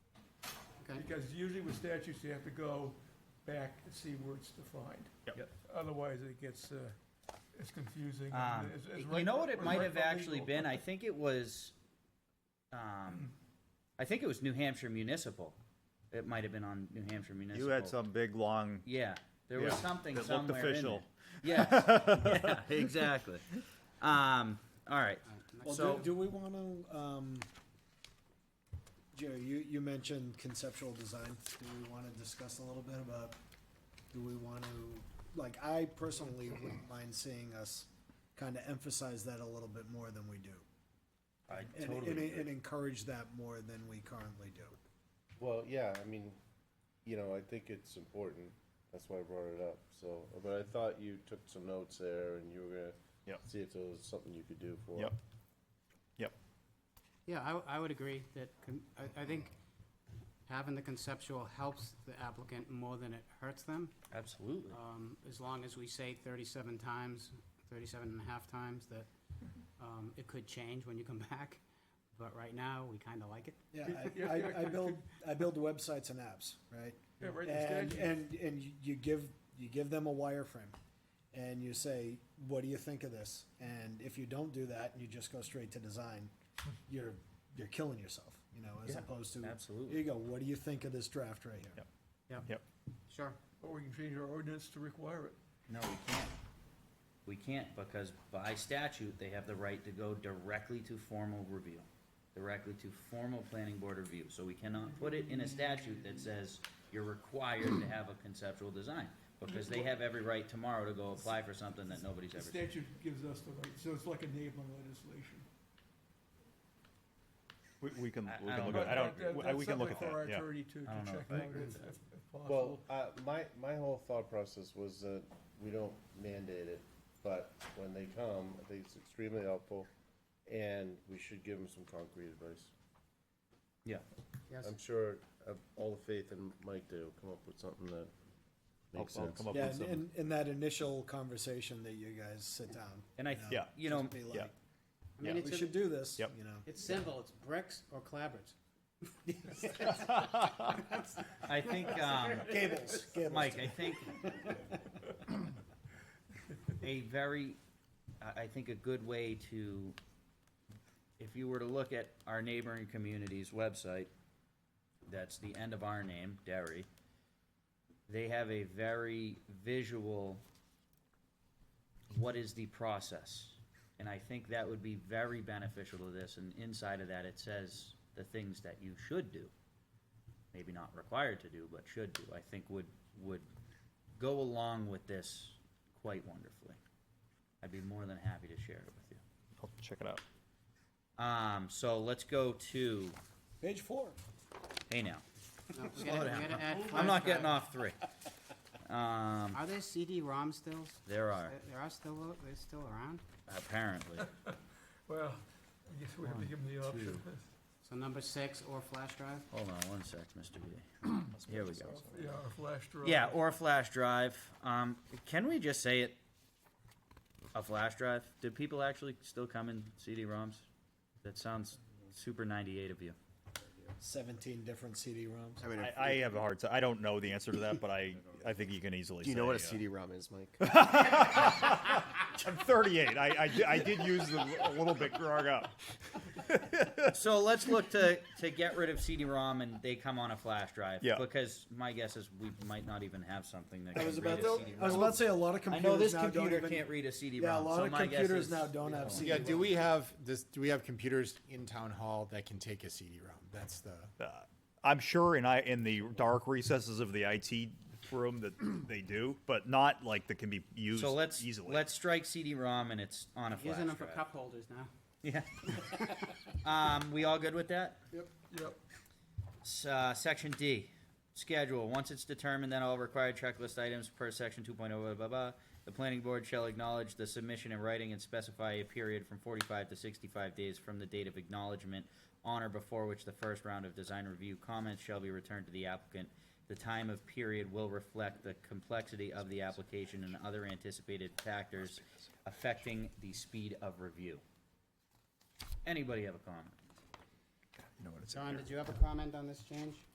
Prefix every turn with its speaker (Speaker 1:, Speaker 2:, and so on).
Speaker 1: Because usually with statutes, you have to go back and see where it's defined.
Speaker 2: Yep. Yep.
Speaker 1: Otherwise, it gets, uh, it's confusing.
Speaker 3: Um,
Speaker 1: It's- it's
Speaker 3: you
Speaker 1: right-
Speaker 3: know what it
Speaker 1: it's
Speaker 3: might
Speaker 1: right
Speaker 3: have
Speaker 1: for
Speaker 3: actually
Speaker 1: legal.
Speaker 3: been? I think it was, um, I think it was New Hampshire Municipal. It might have been on New Hampshire Municipal.
Speaker 2: You had some big, long,
Speaker 3: Yeah, there was
Speaker 2: Yeah,
Speaker 3: something
Speaker 2: it looked
Speaker 3: somewhere in
Speaker 2: official.
Speaker 3: there. Yes, yeah, exactly. Um, all right,
Speaker 4: Well,
Speaker 3: So-
Speaker 4: do, do we want to, um, Jerry, you, you mentioned conceptual design. Do we want to discuss a little bit about, do we want to, like, I personally wouldn't mind seeing us kind of emphasize that a little bit more than we do.
Speaker 5: I
Speaker 4: And, and,
Speaker 5: totally
Speaker 4: and
Speaker 5: agree.
Speaker 4: encourage that more than we currently do.
Speaker 5: Well, yeah, I mean, you know, I think it's important. That's why I brought it up. So, but I thought you took some notes there and you were gonna
Speaker 2: Yep.
Speaker 5: see if there was something you could do for it.
Speaker 2: yep, yep.
Speaker 6: Yeah, I, w- I would agree that, con- I, I think having the conceptual helps the applicant more than it hurts them.
Speaker 3: absolutely.
Speaker 6: Um, as long as we say thirty-seven times, thirty-seven and a half times, that, um, it could change when you come back. But right now, we kinda like it.
Speaker 4: Yeah,
Speaker 1: Yeah,
Speaker 4: I,
Speaker 1: yeah,
Speaker 4: I, I build, I build websites and apps, right?
Speaker 1: Yeah, right, the
Speaker 4: And,
Speaker 1: statute.
Speaker 4: and, and you- you give, you give them a wireframe and you say, what do you think of this? And if you don't do that and you just go straight to design, you're, you're killing yourself, you know, as
Speaker 1: Yeah,
Speaker 4: opposed to.
Speaker 3: absolutely.
Speaker 4: Here you go, what do you think of this draft right here?
Speaker 2: Yep.
Speaker 6: Sure.
Speaker 1: Or we can change our ordinance to require it.
Speaker 3: No, we can't. We can't because by statute, they have the right to go directly to formal review, directly to formal planning board review. So we cannot put it in a statute that says you're required to have a conceptual design because they have every right tomorrow to go apply for something that nobody's
Speaker 1: The
Speaker 3: ever seen.
Speaker 1: statute gives us the right, so it's like enabling legislation.
Speaker 2: We, we can,
Speaker 3: I-
Speaker 2: we
Speaker 3: I
Speaker 2: can
Speaker 3: don't
Speaker 2: look at, I
Speaker 3: know.
Speaker 2: don't,
Speaker 1: That-
Speaker 2: we-
Speaker 1: that's
Speaker 2: we can look at
Speaker 1: something
Speaker 2: that, yeah.
Speaker 1: for our attorney to,
Speaker 3: I
Speaker 1: to
Speaker 3: don't know
Speaker 1: check
Speaker 3: if I
Speaker 1: out
Speaker 3: agree
Speaker 1: if,
Speaker 3: with
Speaker 1: if if
Speaker 5: Well,
Speaker 1: possible.
Speaker 5: uh, my, my whole thought process was that we don't mandate it, but when they come, I think it's extremely helpful. And we should give them some concrete advice.
Speaker 3: Yeah.
Speaker 6: Yes.
Speaker 3: Um,
Speaker 5: I'm sure of all the faith in Mike to come up with something that
Speaker 2: I'll-
Speaker 5: makes
Speaker 2: I'll
Speaker 5: sense.
Speaker 2: come up
Speaker 4: Yeah,
Speaker 2: with
Speaker 4: and,
Speaker 2: something.
Speaker 4: and, and that initial conversation that you guys sit down.
Speaker 3: And I,
Speaker 4: you know,
Speaker 2: Yeah.
Speaker 3: you know,
Speaker 4: just be
Speaker 2: Yeah.
Speaker 4: like,
Speaker 6: I mean,
Speaker 2: Yeah.
Speaker 4: We
Speaker 6: it's,
Speaker 4: should
Speaker 6: a-
Speaker 4: do this,
Speaker 2: Yep.
Speaker 4: you know.
Speaker 6: it's simple, it's bricks or clabber's.
Speaker 3: I think, um,
Speaker 4: Gables, gables.
Speaker 3: Mike, I think a very, I, I think a good way to, if you were to look at our neighboring community's website, that's the end of our name, Derry, they have a very visual, what is the process? And I think that would be very beneficial to this, and inside of that, it says the things that you should do maybe not required to do, but should do, I think would, would go along with this quite wonderfully. I'd be more than happy to share it with you.
Speaker 2: I'll check it out.
Speaker 3: Um, so let's go to,
Speaker 4: Page four.
Speaker 3: hey now,
Speaker 6: No, we gotta- we
Speaker 3: down.
Speaker 6: gotta add
Speaker 3: I'm not
Speaker 6: flashcards.
Speaker 3: getting off three. Um,
Speaker 6: Are there CD-ROM stills?
Speaker 3: there are,
Speaker 6: There- There are still, they're still around?
Speaker 3: apparently.
Speaker 1: Well, I guess we have to give them the option.
Speaker 6: So number six or flash drive?
Speaker 3: Hold on one sec, Mr. B. Here we go.
Speaker 1: Yeah, or flash drive.
Speaker 3: Yeah, or a flash drive. Um, can we just say it? A flash drive? Do people actually still come in CD-ROMs? That sounds super ninety-eight of you.
Speaker 4: Seventeen different CD-ROMs.
Speaker 2: I, I have a hard time, I don't know the answer to that, but I, I think you can easily
Speaker 5: Do you know what a
Speaker 2: say, uh,
Speaker 5: CD-ROM is, Mike?
Speaker 2: I'm thirty-eight, I, I, di- I did use the, a little bit growing up.
Speaker 3: So let's look to, to get rid of CD-ROM and they come on a flash drive.
Speaker 2: Yeah.
Speaker 3: Because my guess is we might not even have something that
Speaker 4: I
Speaker 3: can
Speaker 4: was
Speaker 3: read
Speaker 4: about
Speaker 3: a
Speaker 4: to, I was
Speaker 3: CD-ROM.
Speaker 4: about to say a lot of
Speaker 3: I
Speaker 4: computers
Speaker 3: know this
Speaker 4: now don't
Speaker 3: computer
Speaker 4: even-
Speaker 3: can't read a CD-ROM.
Speaker 4: Yeah, a lot
Speaker 3: so
Speaker 4: of
Speaker 3: my guess
Speaker 4: computers
Speaker 3: is-
Speaker 4: now don't have CD.
Speaker 7: Yeah, do we have this, do we have computers in town hall that can take a CD-ROM? That's the,
Speaker 2: Uh, I'm sure in I, in the dark recesses of the IT room that they do, but not like that can be used
Speaker 3: So let's,
Speaker 2: easily.
Speaker 3: let's strike CD-ROM and it's on a flash
Speaker 6: Using them for
Speaker 3: drive.
Speaker 6: cup holders now.
Speaker 3: Yeah. Um, we all good with that?
Speaker 1: Yep.
Speaker 3: S- uh, section D, schedule, once it's determined that all required checklist items per section two point oh, blah, blah, blah, the planning board shall acknowledge the submission in writing and specify a period from forty-five to sixty-five days from the date of acknowledgement on or before which the first round of design review comments shall be returned to the applicant. The time of period will reflect the complexity of the application and other anticipated factors affecting the speed of review. Anybody have a comment?
Speaker 6: John, did you have a comment on this change?